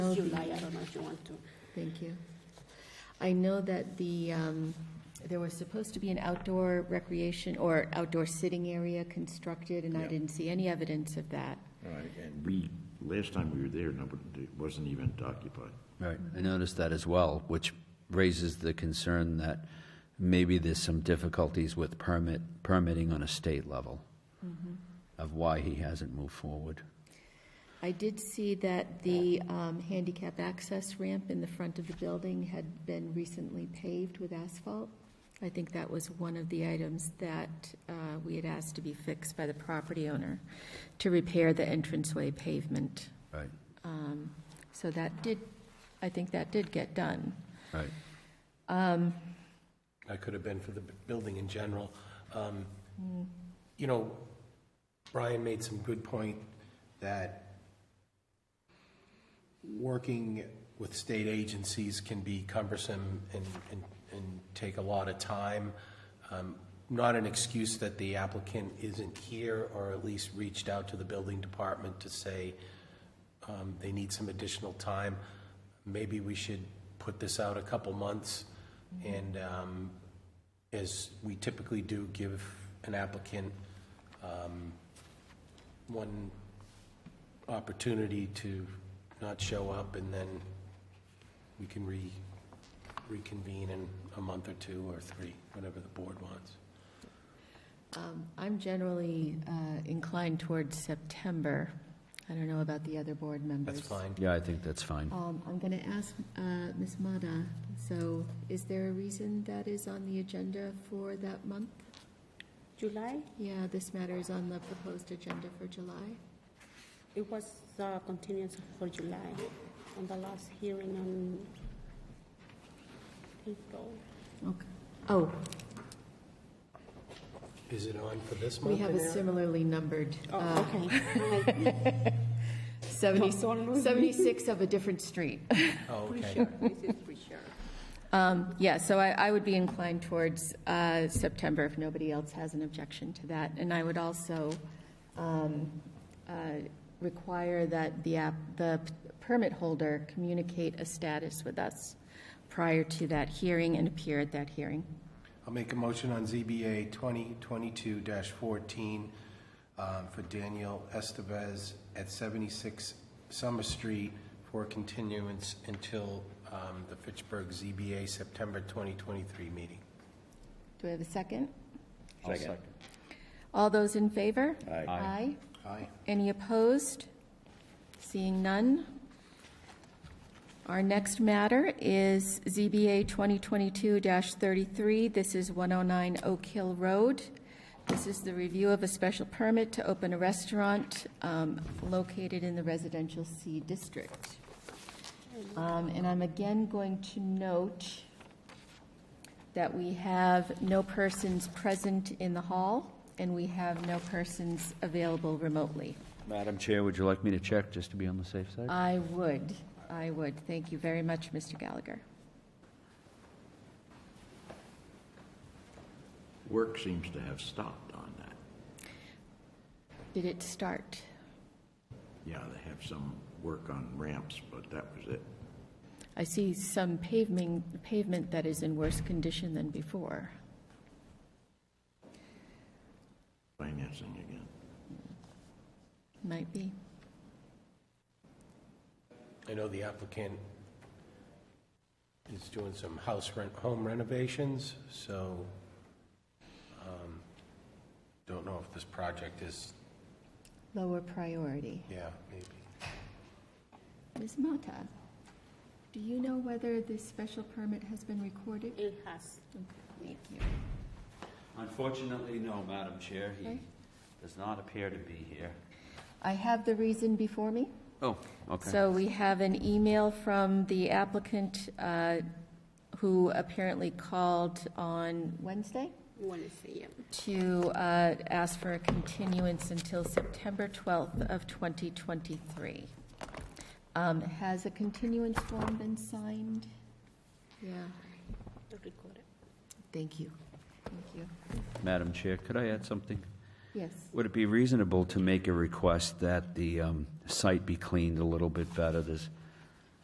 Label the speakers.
Speaker 1: July, I don't know if you want to.
Speaker 2: Thank you. I know that the, um, there was supposed to be an outdoor recreation or outdoor sitting area constructed, and I
Speaker 3: Yeah.
Speaker 2: didn't see any evidence of that.
Speaker 3: All right, and we, last time we were there, nobody, it wasn't even occupied.
Speaker 4: Right, I noticed that as well, which raises the concern that maybe there's some difficulties with permit, permitting on a state level
Speaker 2: Mm-hmm.
Speaker 4: of why he hasn't moved forward.
Speaker 2: I did see that the um, handicap access ramp in the front of the building had been recently paved with asphalt. I think that was one of the items that uh, we had asked to be fixed by the property owner, to repair the entranceway pavement.
Speaker 4: Right,
Speaker 2: So that did, I think that did get done.
Speaker 4: right.
Speaker 5: I could have been for the b- building in general. Um, You know, Brian made some good point that working with state agencies can be cumbersome and, and, and take a lot of time. Um, Not an excuse that the applicant isn't here, or at least reached out to the building department to say um, they need some additional time. Maybe we should put this out a couple months, and um, as we typically do, give an applicant um, one opportunity to not show up, and then we can re, reconvene in a month or two or three, whatever the board wants.
Speaker 2: Um, I'm generally uh, inclined towards September. I don't know about the other board members.
Speaker 5: That's fine.
Speaker 4: Yeah, I think that's fine.
Speaker 2: Um, I'm going to ask uh, Ms. Mata, so is there a reason that is on the agenda for that month?
Speaker 1: July,
Speaker 2: Yeah, this matter is on the proposed agenda for July.
Speaker 1: it was uh, continuance for July on the last hearing on April.
Speaker 2: Okay. Oh,
Speaker 5: Is it on for this month?
Speaker 2: we have a
Speaker 5: Anna?
Speaker 2: similarly numbered,
Speaker 1: Oh,
Speaker 2: uh,
Speaker 1: okay.
Speaker 2: 70
Speaker 1: Oh. Don't lose me.
Speaker 2: 76 of a different street.
Speaker 5: Oh, okay.
Speaker 1: This is for sure.
Speaker 2: Um, Yeah, so I, I would be inclined towards uh, September if nobody else has an objection to that. And I would also um, uh, require that the app, the p- permit holder communicate a status with us prior to that hearing and appear at that hearing.
Speaker 5: I'll make a motion on ZBA 2022-14 um, for Daniel Estevez at 76 Summer Street for continuance until um, the Fitchburg ZBA September 2023 meeting.
Speaker 2: Do I have a second? All those in favor? Aye. Aye.
Speaker 5: Aye.
Speaker 2: Any opposed? Seeing none. Our next matter is ZBA 2022-33. This is 109 Oak Hill Road. This is the review of a special permit to open a restaurant um, located in the residential C district. Um, And I'm again going to note that we have no persons present in the hall, and we have no persons available remotely.
Speaker 4: Madam Chair, would you like me to check, just to be on the safe side?
Speaker 2: I would, I would. Thank you very much, Mr. Gallagher.
Speaker 3: Work seems to have stopped on that.
Speaker 2: Did it start?
Speaker 3: Yeah, they have some work on ramps, but that was it.
Speaker 2: I see some paving, pavement that is in worse condition than before.
Speaker 3: Financing again.
Speaker 2: Might be.
Speaker 5: I know the applicant is doing some house rent, home renovations, so um, don't know if this project is,
Speaker 2: Lower priority.
Speaker 5: yeah, maybe.
Speaker 2: Ms. Mata, do you know whether this special permit has been recorded?
Speaker 1: It has.
Speaker 2: Thank you.
Speaker 4: Unfortunately, no, Madam Chair.
Speaker 2: Okay.
Speaker 4: does not appear to be here.
Speaker 2: I have the reason before me.
Speaker 4: Oh, okay.
Speaker 2: So we have an email from the applicant uh, who apparently called on Wednesday?
Speaker 1: Want to see it.
Speaker 2: to uh, ask for a continuance until September 12th of 2023. Um, Has a continuance form been signed? Yeah,
Speaker 1: Record it.
Speaker 2: thank you. Thank you.
Speaker 4: Madam Chair, could I add something?
Speaker 2: Yes,
Speaker 4: Would it be reasonable to make a request that the um, site be cleaned a little bit better? There's